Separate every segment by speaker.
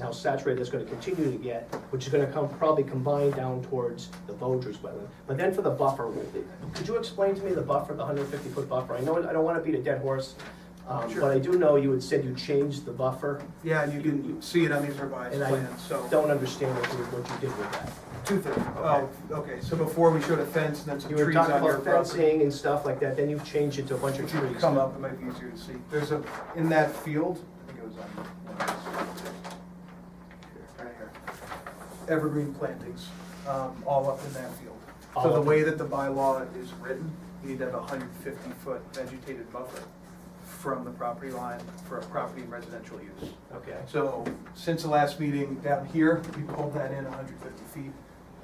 Speaker 1: how saturated that's gonna continue to get, which is gonna come, probably combine down towards the Vosges wetland. But then for the buffer, could you explain to me the buffer, the hundred fifty foot buffer? I know, I don't wanna beat a dead horse, um,
Speaker 2: Sure.
Speaker 1: but I do know you had said you changed the buffer.
Speaker 2: Yeah, and you can see it on these revised
Speaker 1: And I
Speaker 2: plans, so,
Speaker 1: Don't understand what you, what you did with that.
Speaker 2: two things, oh, okay, so before we showed a fence and then some
Speaker 1: You were
Speaker 2: trees
Speaker 1: talking
Speaker 2: on your
Speaker 1: about
Speaker 2: property.
Speaker 1: fencing and stuff like that, then you've changed it to a bunch of
Speaker 2: Which you
Speaker 1: trees.
Speaker 2: would come up, it might be easier to see, there's a, in that field, I think it was on. one of these. Right here. Evergreen plantings, um, all up in that field. So
Speaker 1: All
Speaker 2: the
Speaker 1: up.
Speaker 2: way that the bylaw is written, you need to have a hundred fifty foot vegetated buffer from the property line for a property in residential use.
Speaker 1: Okay,
Speaker 2: So since the last meeting down here, we pulled that in 150 feet.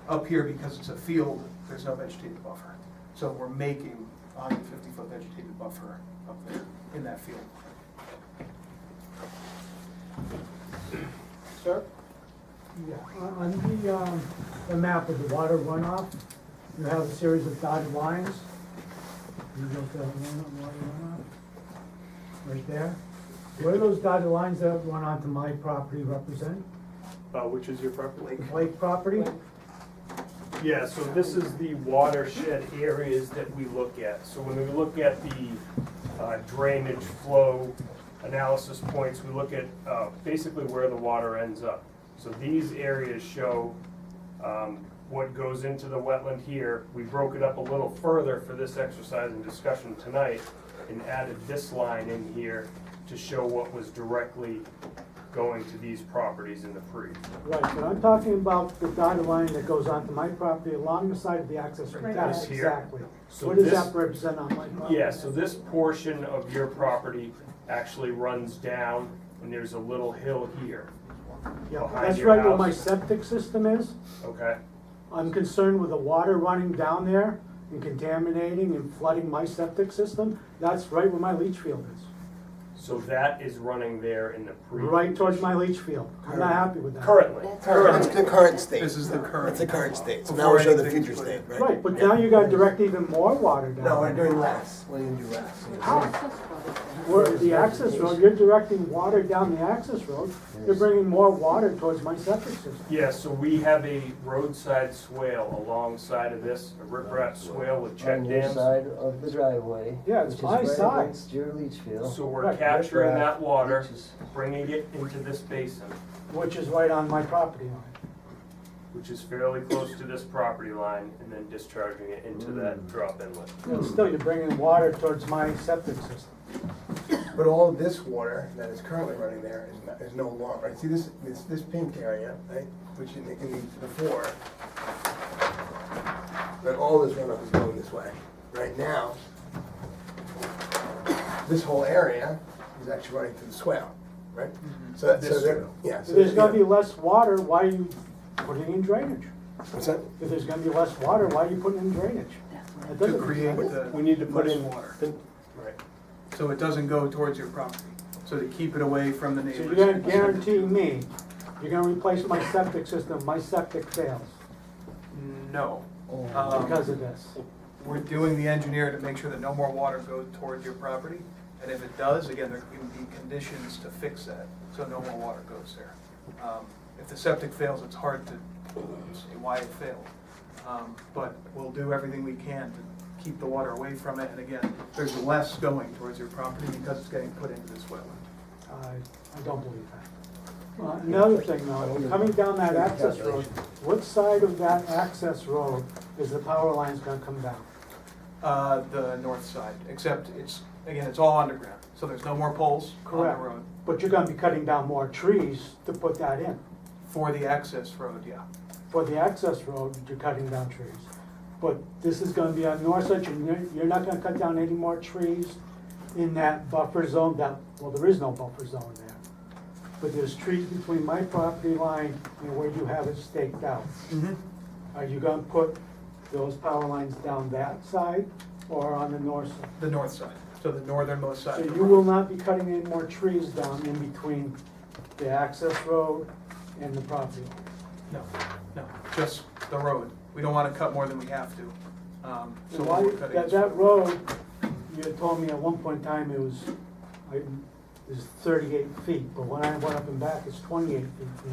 Speaker 2: Up here, because it's a field, there's no vegetated buffer. So we're making 150-foot vegetated buffer up there in that field. Sir?
Speaker 3: Yeah, on- on the, um, the map of the water runoff, you have a series of dotted lines. You don't have one- water runoff, right there. What do those dotted lines that went onto my property represent?
Speaker 4: Uh, which is your property?
Speaker 3: The Lake property?
Speaker 4: Yeah, so this is the watershed areas that we look at. So when we look at the uh, drainage flow analysis points, we look at uh, basically where the water ends up. So these areas show um, what goes into the wetland here. We broke it up a little further for this exercise and discussion tonight and added this line in here to show what was directly going to these properties in the pre.
Speaker 3: Right, but I'm talking about the dotted line that goes onto my property along the side of the access road.
Speaker 5: Right.
Speaker 3: That's
Speaker 4: This here.
Speaker 3: Exactly.
Speaker 4: So
Speaker 3: What does
Speaker 4: this-
Speaker 3: that represent on my property?
Speaker 4: Yeah, so this portion of your property actually runs down, and there's a little hill here,
Speaker 3: Yeah,
Speaker 4: behind
Speaker 3: That's
Speaker 4: your
Speaker 3: right where my
Speaker 4: house.
Speaker 3: septic system is.
Speaker 4: okay?
Speaker 3: I'm concerned with the water running down there and contaminating and flooding my septic system. That's right where my leach field is,
Speaker 4: So that is running there in the pre.
Speaker 3: right towards my leach field. I'm not happy with that.
Speaker 4: Currently,
Speaker 6: That's
Speaker 4: currently,
Speaker 6: the current state.
Speaker 2: This is the current.
Speaker 6: That's the current state. So now
Speaker 2: Before
Speaker 6: we'll show the
Speaker 2: anything's
Speaker 6: future
Speaker 2: put
Speaker 6: state,
Speaker 2: in.
Speaker 6: right?
Speaker 3: Right, but now you gotta direct even more water down.
Speaker 6: No, we're
Speaker 3: there.
Speaker 6: doing less. What are you gonna do less?
Speaker 3: Where the access road, you're directing water down the access road, you're bringing more water towards my septic system.
Speaker 4: yeah, so we have a roadside swale alongside of this, a riprap swale with check
Speaker 7: On your
Speaker 4: dams.
Speaker 7: side of the driveway.
Speaker 3: Yeah, it's
Speaker 7: which is
Speaker 3: my
Speaker 7: right
Speaker 3: side.
Speaker 7: against Your leach field.
Speaker 4: So we're
Speaker 3: Right,
Speaker 4: capturing
Speaker 7: riprap,
Speaker 4: that water,
Speaker 7: which is-
Speaker 4: bringing it into this basin,
Speaker 3: Which is right on my property line.
Speaker 4: which is fairly close to this property line, and then discharging it into that drop inlet.
Speaker 6: Hmm.
Speaker 3: And still, you're bringing water towards my septic system.
Speaker 6: But all of this water that is currently running there is, not, is no longer, right? See this, this, this pink area, right, which in the, in the before, that all this runoff is going this way. Right now, this whole area is actually running through the swale, right? So that, so
Speaker 2: This
Speaker 6: there,
Speaker 2: swale.
Speaker 6: yeah.
Speaker 3: If
Speaker 6: so
Speaker 3: there's
Speaker 6: there-
Speaker 3: gonna be less water, why are you putting in drainage?
Speaker 6: What's that?
Speaker 3: If there's gonna be less water, why are you putting in drainage? That
Speaker 2: To
Speaker 3: doesn't make
Speaker 2: create
Speaker 3: sense.
Speaker 2: the.
Speaker 4: We need to put
Speaker 2: less
Speaker 4: in-
Speaker 2: Water,
Speaker 4: Right.
Speaker 2: so it doesn't go towards your property, so to keep it away from the
Speaker 3: So
Speaker 2: neighbors.
Speaker 3: you're gonna guarantee me, you're gonna replace my septic system, my septic fails
Speaker 2: No. Um,
Speaker 3: because of this.
Speaker 2: We're doing the engineer to make sure that no more water goes toward your property, and if it does, again, there can be conditions to fix that, so no more water goes there. Um, If the septic fails, it's hard to say why it failed, Um, but we'll do everything we can to keep the water away from it, and again, there's less going towards your property because it's getting put into this wetland.
Speaker 3: I, I don't believe that. Uh, Another thing though, coming down that access road, what side of that access road is the power lines gonna come down?
Speaker 2: Uh, The north side, except it's, again, it's all underground, so there's no more poles on the
Speaker 3: Correct.
Speaker 2: road.
Speaker 3: But you're gonna be cutting down more trees to put that in.
Speaker 2: For the access road, yeah.
Speaker 3: For the access road, you're cutting down trees. But this is gonna be on north side, and you're, you're not gonna cut down any more trees in that buffer zone, that, well, there is no buffer zone there. But there's trees between my property line and where you have it staked out. Are you gonna put those power lines down that side or on the north side?
Speaker 2: The north side, so the northernmost side.
Speaker 3: So
Speaker 2: of the
Speaker 3: you
Speaker 2: road.
Speaker 3: will not be cutting any more trees down in between the access road and the property line?
Speaker 2: No, no, just the road. We don't want to cut more than we have to. Um,
Speaker 3: So
Speaker 2: So
Speaker 3: why,
Speaker 2: we're cutting.
Speaker 3: that,
Speaker 2: is-
Speaker 3: that road, you had told me at one point in time it was, I, is thirty-eight feet, but when I went up and back, it's twenty-eight feet from the